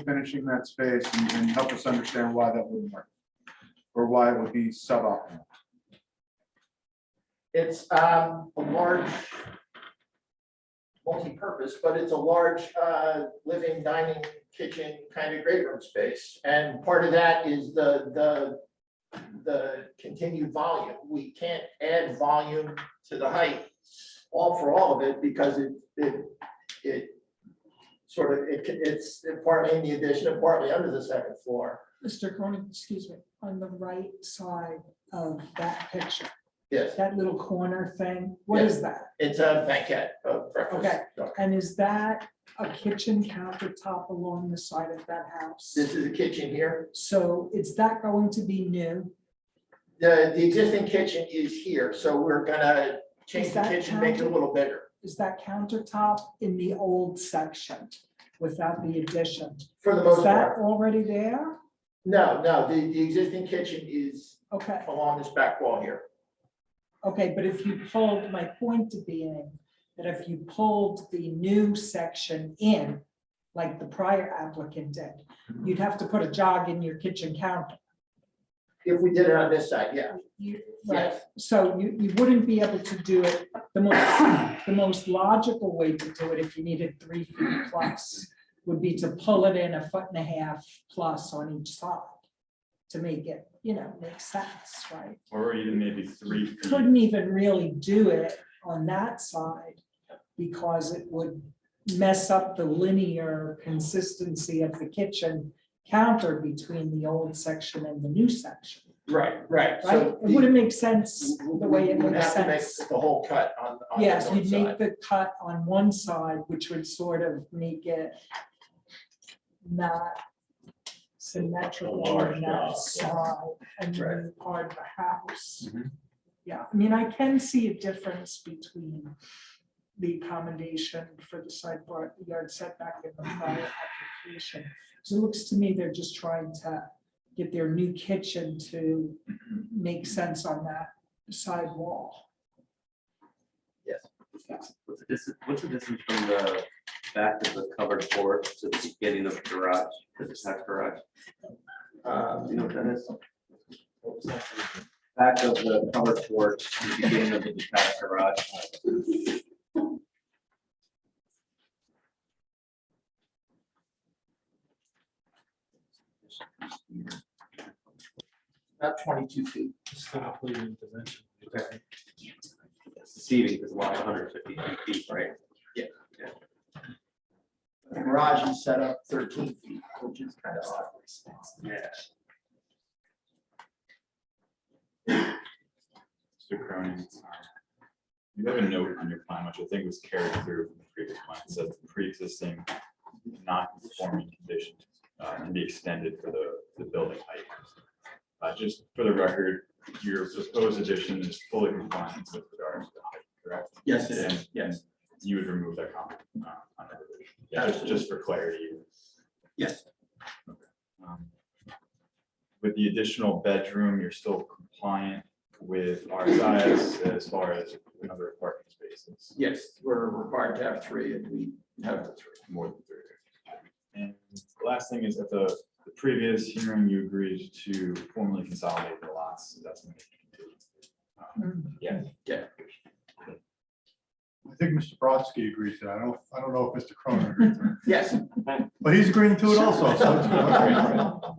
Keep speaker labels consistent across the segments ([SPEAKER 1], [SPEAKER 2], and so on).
[SPEAKER 1] finishing that space and, and help us understand why that wouldn't work? Or why it would be suboptimal?
[SPEAKER 2] It's um, a large multi-purpose, but it's a large uh, living, dining, kitchen kind of great room space. And part of that is the, the, the continued volume. We can't add volume to the height all for all of it because it, it, it sort of, it, it's partly in the addition and partly under the second floor.
[SPEAKER 3] Mr. Cronin, excuse me, on the right side of that picture,
[SPEAKER 2] Yes,
[SPEAKER 3] that little corner thing, what is that?
[SPEAKER 2] it's a banquet of breakfast.
[SPEAKER 3] Okay. And is that a kitchen countertop along the side of that house?
[SPEAKER 2] This is the kitchen here.
[SPEAKER 3] So is that going to be new?
[SPEAKER 2] The, the existing kitchen is here, so we're gonna change
[SPEAKER 3] Is
[SPEAKER 2] the
[SPEAKER 3] that
[SPEAKER 2] kitchen, make it a
[SPEAKER 3] counted?
[SPEAKER 2] little bigger.
[SPEAKER 3] Is that countertop in the old section without the addition?
[SPEAKER 2] For the most
[SPEAKER 3] Is that
[SPEAKER 2] part,
[SPEAKER 3] already there?
[SPEAKER 2] no, no, the, the existing kitchen is
[SPEAKER 3] Okay,
[SPEAKER 2] along this back wall here.
[SPEAKER 3] okay, but if you pulled, my point to being that if you pulled the new section in, like the prior applicant did, you'd have to put a jog in your kitchen counter.
[SPEAKER 2] If we did it on this side, yeah,
[SPEAKER 3] You- right,
[SPEAKER 2] yes,
[SPEAKER 3] so you, you wouldn't be able to do it, the most, the most logical way to do it if you needed three feet plus would be to pull it in a foot and a half plus on each side to make it, you know, make sense, right?
[SPEAKER 4] Or even maybe three feet.
[SPEAKER 3] Couldn't even really do it on that side because it would mess up the linear consistency of the kitchen counter between the old section and the new section,
[SPEAKER 2] right, right,
[SPEAKER 3] right?
[SPEAKER 2] so.
[SPEAKER 3] It
[SPEAKER 2] the-
[SPEAKER 3] wouldn't make sense
[SPEAKER 2] we-
[SPEAKER 3] the way it
[SPEAKER 2] we would
[SPEAKER 3] makes
[SPEAKER 2] have to make
[SPEAKER 3] sense.
[SPEAKER 2] The whole cut on, on the
[SPEAKER 3] Yes,
[SPEAKER 2] north
[SPEAKER 3] you'd make
[SPEAKER 2] side.
[SPEAKER 3] the cut on one side, which would sort of make it not symmetrical
[SPEAKER 4] large
[SPEAKER 3] on that
[SPEAKER 4] lot, yeah.
[SPEAKER 3] side and
[SPEAKER 2] Right. Mm-hmm.
[SPEAKER 3] the part of the house.
[SPEAKER 4] Mhm.
[SPEAKER 3] Yeah, I mean, I can see a difference between the accommodation for the side bar- yard setback and the prior application. So it looks to me they're just trying to get their new kitchen to make sense on that side wall.
[SPEAKER 5] What's the distance, what's the distance from the back of the covered porch to the beginning of the garage, to the attached garage? Do you know
[SPEAKER 2] Um,
[SPEAKER 5] what that is? Back of the covered porch to the beginning of the detached garage.
[SPEAKER 2] About twenty-two feet,
[SPEAKER 5] It's Deceiving because a lot of hundred fifty feet, right?
[SPEAKER 2] The garage is set up thirteen feet, which is kind of odd.
[SPEAKER 5] Yeah.
[SPEAKER 4] Mr. Cronin. You have a note on your plan, which I think was carried through from the previous plan, It says the pre-existing non-conforming condition uh, can be extended for the, the building height. Uh, just for the record, your proposed addition is fully compliant with regards to the height, correct?
[SPEAKER 2] Yes, it is,
[SPEAKER 4] And-
[SPEAKER 2] yes,
[SPEAKER 4] You would remove that comment. uh, on that. Yeah, just, just for clarity.
[SPEAKER 2] yes,
[SPEAKER 4] Um, With the additional bedroom, you're still compliant with RSIS as far as the number of parking spaces,
[SPEAKER 2] yes, we're required to have three and we have the three.
[SPEAKER 4] more than three. And the last thing is at the, the previous hearing, you agreed to formally consolidate the lots, so that's. gonna continue. Um, Yeah.
[SPEAKER 2] Yeah.
[SPEAKER 1] I think Mr. Brodsky agrees to that. I don't, I don't know if Mr. Cronin agrees to it,
[SPEAKER 2] Yes.
[SPEAKER 1] but he's agreeing to it also. so it's good.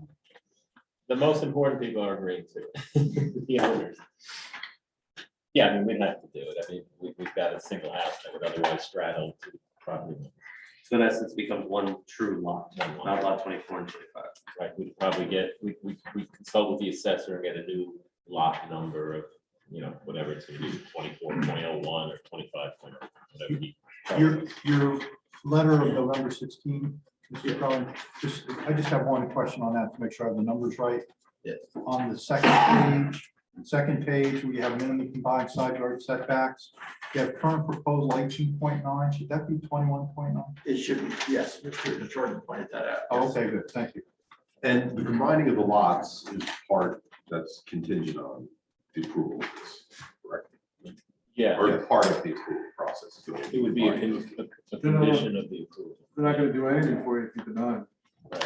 [SPEAKER 6] The most important people are agreeing to it, the owners. Yeah, I mean, we'd have to do it. I mean, we, we've got a single house that would otherwise straddle to probably,
[SPEAKER 5] So in essence, becomes one true lot,
[SPEAKER 6] One lot.
[SPEAKER 5] not lot twenty-four and twenty-five.
[SPEAKER 6] right, we'd probably get, we, we, we consult with the assessor and get a new lot number of, you know, whatever it's gonna be, twenty-four, point oh one, or twenty-five, point whatever. he-
[SPEAKER 1] Your, your letter of November 16, Mr. Cronin, just, I just have one question on that to make sure I have the numbers right.
[SPEAKER 2] Yes.
[SPEAKER 1] On the second page, second page, we have minimum combined side yard setbacks. You have current proposal 18.9, should that be 21.9?
[SPEAKER 2] It should, be yes, Mr. Jordan pointed that out.
[SPEAKER 1] Oh, Okay, good, thank you.
[SPEAKER 7] And the combining of the lots is part that's contingent on the approval, of this, correct?
[SPEAKER 6] Yeah,
[SPEAKER 7] Or part of the approval process.
[SPEAKER 6] it would be a, con- a a
[SPEAKER 1] No, no, no.
[SPEAKER 6] condition of the approval.
[SPEAKER 1] They're not gonna do anything for you if you deny.